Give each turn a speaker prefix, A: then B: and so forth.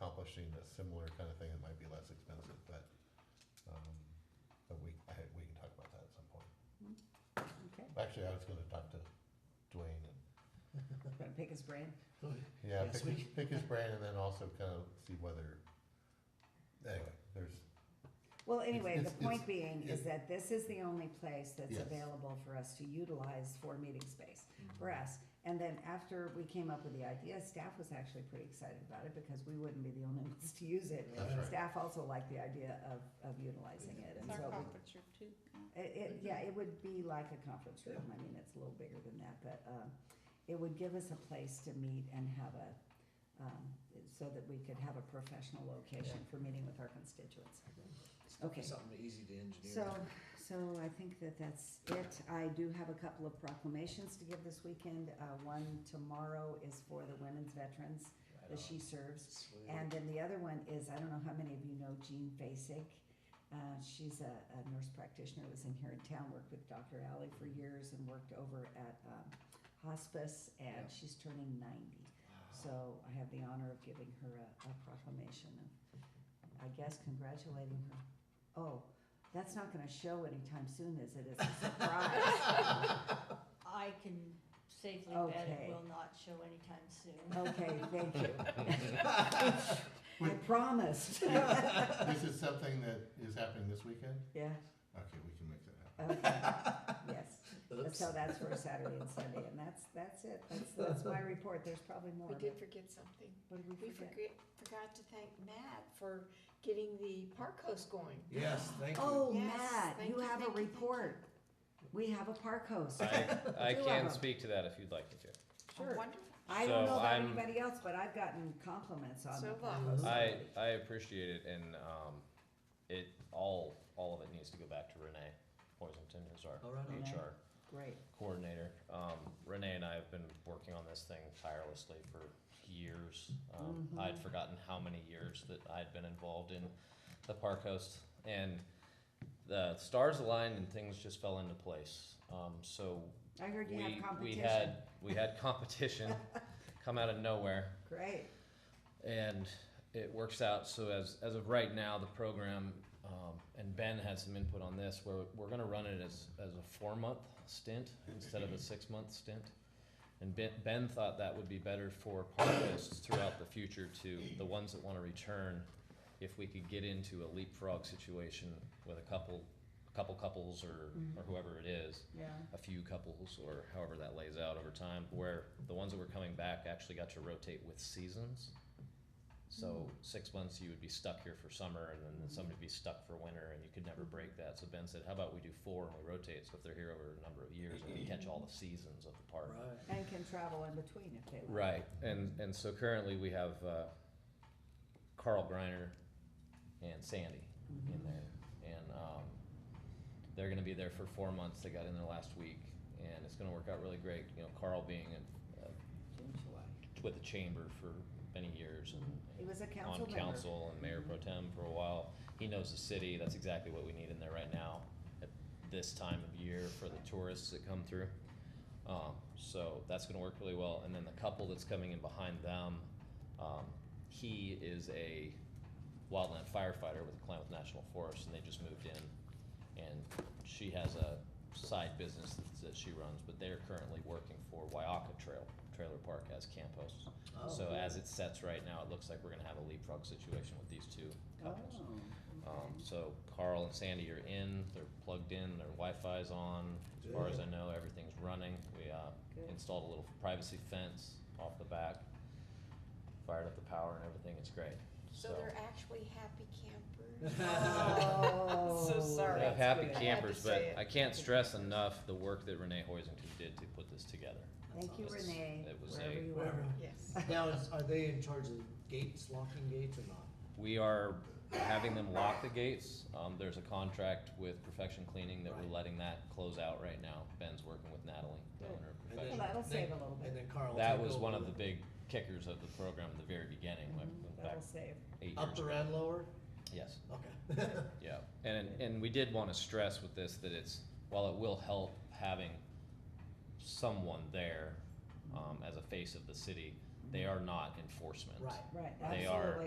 A: publishing a similar kind of thing, it might be less expensive, but, um, but we, I, we can talk about that at some point.
B: Okay,
A: Actually, I was gonna talk to Dwayne and,
B: gonna pick his brain.
A: yeah,
C: Yes,
A: pick his, pick his brain and then also kind of see whether, anyway, there's,
B: Well, anyway,
A: it's-
B: the
A: it's-
B: point being is
A: it-
B: that this is the only place that's
A: Yes.
B: available for us to utilize for meeting space for us. And then after we came up with the idea, staff was actually pretty excited about it because we wouldn't be the only ones to use it.
A: That's right.
B: Staff also liked the idea of, of utilizing it and
D: It's our
B: so we
D: conference room too.
B: It, it, yeah, it would be like a conference room, I mean, it's a little bigger than that, but, um, it would give us a place to meet and have a, um, so that we could have a professional location for meeting with our constituents. Okay.
C: Something easy to engineer.
B: So, so I think that that's it, I do have a couple of proclamations to give this weekend, uh, one tomorrow is for the women's veterans
C: Right
B: that
C: on.
B: she serves.
C: Sweet.
B: And then the other one is, I don't know how many of you know Jean Basic. Uh, she's a, a nurse practitioner, was in here in town, worked with Dr. Alley for years and worked over at, um, hospice and
C: Yeah.
B: she's turning ninety.
C: Wow.
B: So I have the honor of giving her a, a proclamation of, I guess, congratulating her. Oh, that's not gonna show anytime soon, is it? It's a surprise.
D: I can safely bet
B: Okay.
D: it will not show anytime soon.
B: Okay, thank you. I promised. Yeah,
A: this is something that is happening this weekend? Okay, we can make that happen.
B: okay, yes.
C: Oops.
B: So that's for Saturday and Sunday, and that's, that's it, that's, that's my report, there's probably more.
E: We did
B: but
E: forget something.
B: What did
E: We
B: we forget?
E: forget, forgot to thank Matt for getting the park host going.
C: Yes, thank you.
B: Oh,
E: Yes,
B: Matt,
E: thank
B: you
E: you,
B: have a
E: thank you, thank you.
B: report. We have a park host.
F: I, I
B: Two of
F: can
B: them.
F: speak to that if you'd like me to.
E: Oh,
B: Sure.
E: Wonderful.
B: I don't
F: So
B: know about
F: I'm-
B: anybody else, but I've gotten compliments on
E: So
B: the
E: have
B: park
E: I.
B: host.
F: I,
B: already.
F: I appreciate it, and um, it all all of it needs to go back to Renee Poisonton, who's our
C: All right on.
B: Renee.
F: HR
B: Great,
F: coordinator. Um, Renee and I have been working on this thing tirelessly for years. Um,
B: Mhm.
F: I'd forgotten how many years that I'd been involved in the park host, and the stars aligned and things just fell into place. Um, so
B: I heard you
F: we
B: have
F: we
B: competition,
F: had we had competition come out of nowhere.
B: great,
F: and it works out so as as of right now the program um, and Ben had some input on this where we're going to run it as as a four month stint instead of a six month stint and ben, ben thought that would be better for parkists throughout the future to the ones that want to return if we could get into a leapfrog situation with a couple a couple couples or or whoever it is
B: yeah,
F: a few couples or however that lays out over time where the ones that were coming back actually got to rotate with seasons so six months you would be stuck here for summer and then somebody would be stuck for winter and you could never break that so ben said how about we do four and we rotate so if they're here over a number of years and we catch all the seasons of the park
C: Right.
B: and can travel in between if they want.
F: Right, and and so currently we have uh, Carl Griner and Sandy Mm-hmm. in there, and um, they're going to be there for four months. They got in there last week, and it's going to work out really great. You know, Carl being in, uh,
B: June, July.
F: with the chamber for many years and.
B: He was a
F: on
B: council member.
F: council and mayor pro tem for a while. He knows the city. That's exactly what we need in there right now at this time of year for the tourists that come through. Um, so that's going to work really well. And then the couple that's coming in behind them, um, he is a wildland firefighter with Klamath National Forest, and they just moved in. And she has a side business that- that she runs, but they're currently working for Wyaka Trail Trailer Park as camp hosts.
C: Oh.
F: So as it sets right now, it looks like we're gonna have a leapfrog situation with these two couples.
B: Oh,
F: Um,
B: okay.
F: so Carl and Sandy are in, they're plugged in, their Wi-Fi's on, as far as I know, everything's running. We, uh,
B: Good.
F: installed a little privacy fence off the back, fired up the power and everything, it's great, so.
E: So they're actually happy campers.
B: Oh.
E: So sorry.
F: We have
E: That's
F: happy
E: good. I had to
F: campers,
E: say
F: but
E: it.
F: I can't stress enough the work that Renee Hoisington did to put this together.
B: Thank you,
F: It's-
B: Renee,
F: it was
B: wherever
F: a-
B: you
C: Wherever.
B: are.
E: Yes.
C: Now, is, are they in charge of gates, locking gates or not?
F: We are having them lock the gates. Um, there's a contract with Perfection Cleaning that we're
C: Right.
F: letting that close out right now. Ben's working with Natalie, the
B: Good.
F: owner of
C: And
F: Perfection.
C: then-
B: Well, that'll
C: then-
B: save a little bit.
C: And then Carl. will
F: That
C: take
F: was
C: over
F: one of the big kickers of the program at the very beginning, like
B: Mhm,
F: back
B: That'll save,
F: eight years
C: Mm-hmm. Upper
F: ago.
C: and lower?
F: Yes.
C: Okay.
F: Yeah, and, and we did wanna stress with this that it's, while it will help having someone there, um, as a face of the city, they are not enforcement.
C: Right.
B: right,
F: They are-
B: absolutely.